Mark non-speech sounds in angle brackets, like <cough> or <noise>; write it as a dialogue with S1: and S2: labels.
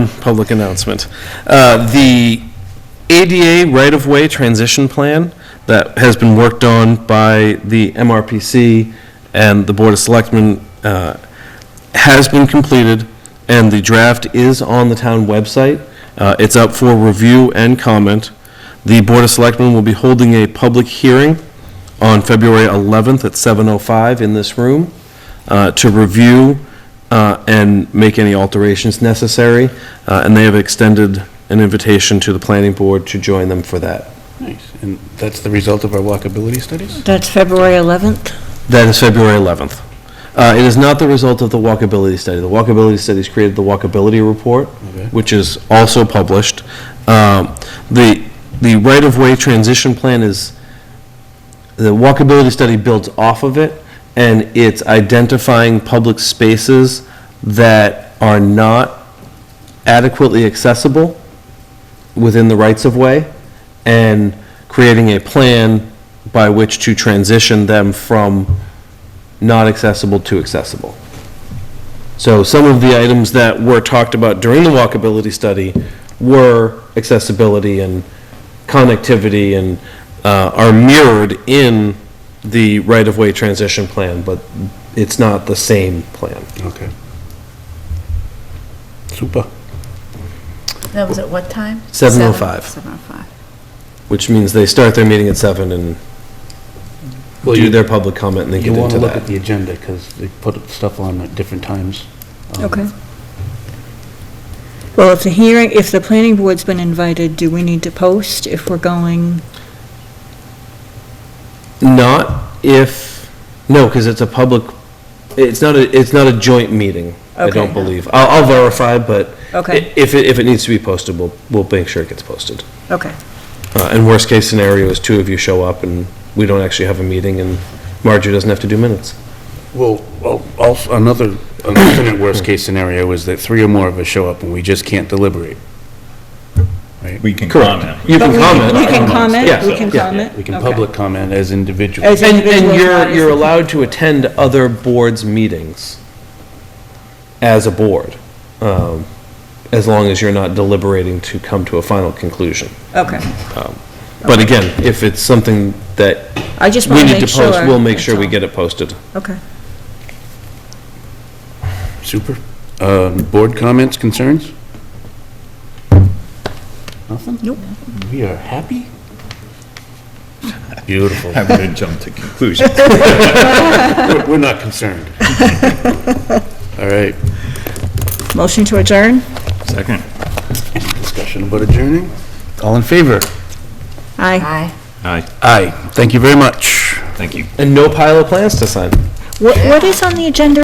S1: public announcement. Uh, The ADA right-of-way transition plan that has been worked on by the MRPC and the Board of Selectmen uh, has been completed, and the draft is on the town website. Uh, It's up for review and comment. The Board of Selectmen will be holding a public hearing on February 11th at 7:05 in this room uh, to review uh, and make any alterations necessary, uh, and they have extended an invitation to the planning board to join them for that.
S2: Nice, and that's the result of our walkability studies?
S3: That's February 11th?
S1: That is February 11th. Uh, It is not the result of the walkability study. The walkability studies created the walkability report,
S2: Okay.
S1: which is also published. Um, The, the right-of-way transition plan is, the walkability study builds off of it, and it's identifying public spaces that are not adequately accessible within the rights-of-way, and creating a plan by which to transition them from not accessible to accessible. So some of the items that were talked about during the walkability study were accessibility and connectivity and uh, are mirrored in the right-of-way transition plan, but it's not the same plan.
S2: Okay. Super.
S4: That was at what time?
S1: 7:05.
S4: Seven oh five.
S1: Which means they start their meeting at seven and
S2: Well,
S1: do
S2: you-
S1: their public comment and then
S2: You
S1: get
S2: want to
S1: into
S2: look at
S1: that.
S2: the agenda, because they put stuff on at different times. Um,
S3: Well, if the hearing, if the planning board's been invited, do we need to post if we're going?
S1: Not if, no, because it's a public, it's not, a it's not a joint meeting, I don't
S3: Okay.
S1: believe. I'll, I'll verify, but
S3: Okay.
S1: i- if, it- if it needs to be posted, we'll, we'll make sure it gets posted.
S3: Okay.
S1: Uh, And worst-case scenario is two of you show up and we don't actually have a meeting and Marjorie doesn't have to do minutes.
S2: Well, al- also, another, an <coughs> alternate worst-case scenario is that three or more of us show up and we just can't deliberate.
S5: We can
S1: Correct.
S5: comment.
S1: You can
S3: We
S1: comment.
S3: we can comment,
S1: Yeah,
S3: we can
S1: yeah.
S3: comment?
S2: We can
S3: Okay.
S2: public comment as individuals.
S3: As
S1: And, and
S3: individuals, not
S1: you're,
S3: as
S1: you're
S3: a-
S1: allowed to attend other boards' meetings as a board, um, as long as you're not deliberating to come to a final conclusion.
S3: Okay.
S1: But again, if it's something that
S3: I just
S1: we
S3: want
S1: need
S3: to make
S1: to
S3: sure.
S1: post, we'll make
S3: that's
S1: sure we
S3: all.
S1: get it posted.
S3: Okay.
S2: Super. Um, Board comments, concerns? Nothing?
S3: Nope.
S2: We are happy? Beautiful.
S5: I'm going to jump to conclusions.
S2: We're we're not
S3: <laughs>
S2: concerned. All right,
S3: Motion to adjourn?
S5: Second.
S2: discussion about adjourning? All in favor?
S3: Aye.
S4: Aye.
S5: Aye,
S2: Aye. Thank you very much.
S5: thank you.
S1: And no pile of plans to sign.
S3: What, what is on the agenda